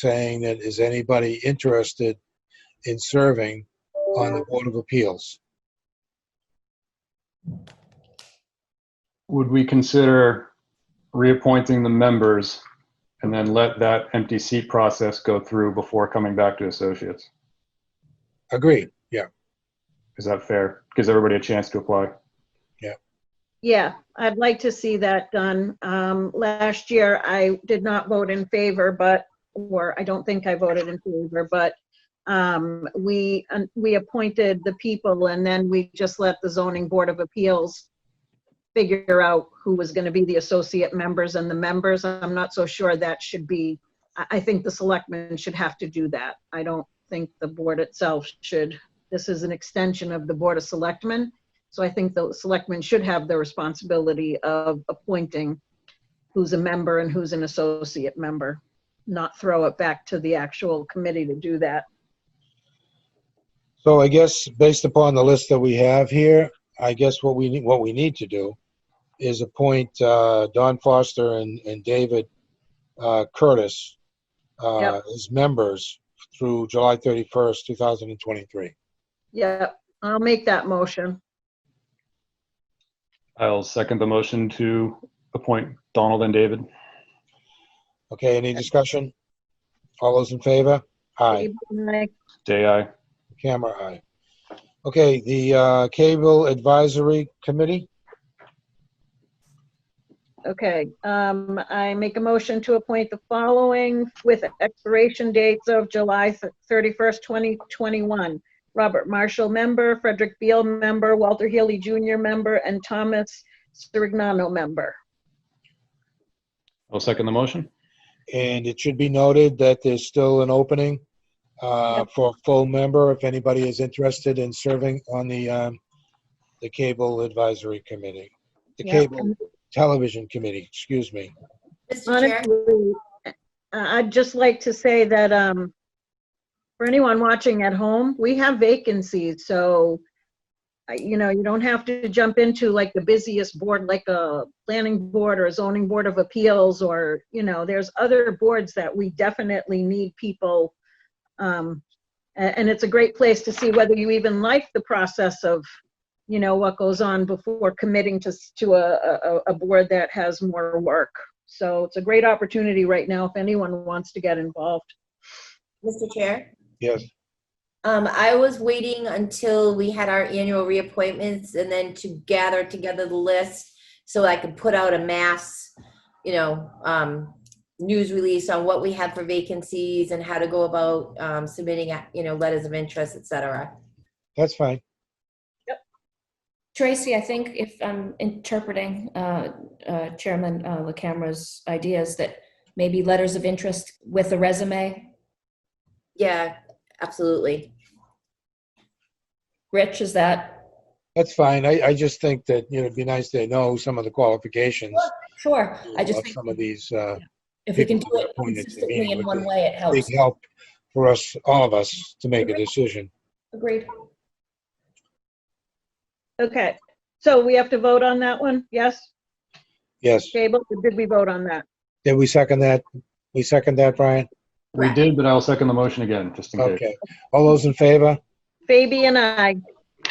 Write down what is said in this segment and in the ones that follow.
saying that is anybody interested in serving on the Board of Appeals? Would we consider reappointing the members and then let that empty seat process go through before coming back to associates? Agreed, yeah, Is that fair? Gives everybody a chance to apply. Yeah, I'd like to see that done. Um, last year, I did not vote in favor, but, or I don't think I voted in favor, but, um, we, um, we appointed the people and then we just let the zoning board of appeals figure out who was gonna be the associate members and the members. I'm not so sure that should be, I, I think the selectmen should have to do that. I don't think the board itself should. This is an extension of the board of selectmen. So I think the selectmen should have the responsibility of appointing who's a member and who's an associate member, not throw it back to the actual committee to do that. so I guess based upon the list that we have here, I guess what we, need what we need to do is appoint uh, Don Foster and, and David uh, Curtis uh, as members through July 31st, 2023. Yep, I'll make that motion. I'll second the motion to appoint Donald and David. Okay, any discussion? All those in favor? Aye. Like, Day I. Camera, aye. Okay, the uh, Cable Advisory Committee, Okay, um, I make a motion to appoint the following with expiration dates of July thirty-first, twenty twenty-one. Robert Marshall, member, Frederick Beal, member, Walter Healy Jr., member, and Thomas Sirignano, member. I'll second the motion. and it should be noted that there's still an opening uh, for a full member if anybody is interested in serving on the, um, the Cable Advisory Committee. The Yeah, Cable Television Committee, excuse me. Mr. Chair, Honestly, I- I'd just like to say that um, for anyone watching at home, we have vacancies, so, I- you know, you don't have to jump into like the busiest board, like a planning board or a zoning board of appeals, or, you know, there's other boards that we definitely need people. um, a- And it's a great place to see whether you even like the process of, you know, what goes on before committing to, s- to a, a- a, a board that has more work. So it's a great opportunity right now if anyone wants to get involved. Mr. Chair, Yes, um, I was waiting until we had our annual reappointments and then to gather together the list so I could put out a mass, you know, um, news release on what we have for vacancies and how to go about, um, submitting, uh, you know, letters of interest, et cetera. that's fine. Tracy, I think if I'm interpreting uh, uh, Chairman uh, LaCamera's ideas, that maybe letters of interest with a resume. Yeah, absolutely. Rich, is that? That's fine. I, I just think that, you know, it'd be nice to know some of the qualifications Sure. I just of think some of these, uh, if we can do people it appointed to consistently meeting in with one the- way, it big helps. help for us, all of us, to make a decision. Agreed. Okay, so we have to vote on that one? Yes, Yes. Gable, did we vote on that? Did we second that? We second that, Brian? We did, but I'll second the motion again, just in case. Okay. All those in favor? Fabi and I,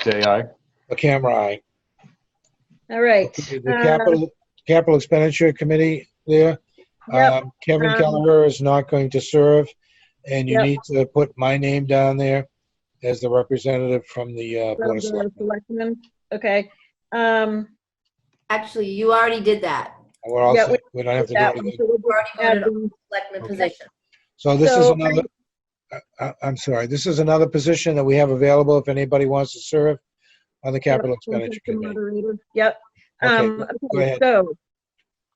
Day I. The camera eye. all right. The Uh, capital, capital expenditure committee there. Yep, um, Kevin um, Kelleher is not going to serve, and you Yep. need to put my name down there as the representative from the uh, Board of Selectmen. Selectmen, Okay, um, Actually, you already did that. We're all Yeah, set. We don't have to do that one, anything. so You we'll already add voted on them. the selectman Okay. position. So this is So- another, I- I, I'm sorry, this is another position that we have available if anybody wants to serve on the capital Yep, one expenditure second, committee. moderator. Yep. Okay, Um, go okay, ahead. So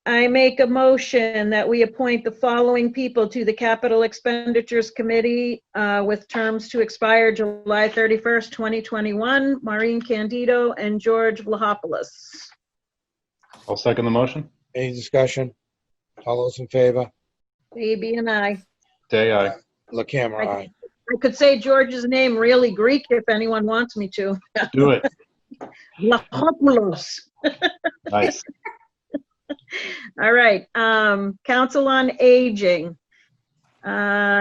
I make a motion that we appoint the following people to the Capital Expenditures Committee uh, with terms to expire July 31st, 2021, Maureen Candido and George Vlahopoulos. I'll second the motion. Any discussion? All those in favor? Baby and I. Day I. La camera, I- aye. I could say George's name really Greek if anyone wants me to. Do it. Vlahopoulos. Nice. All right, um, Council on Aging. Uh,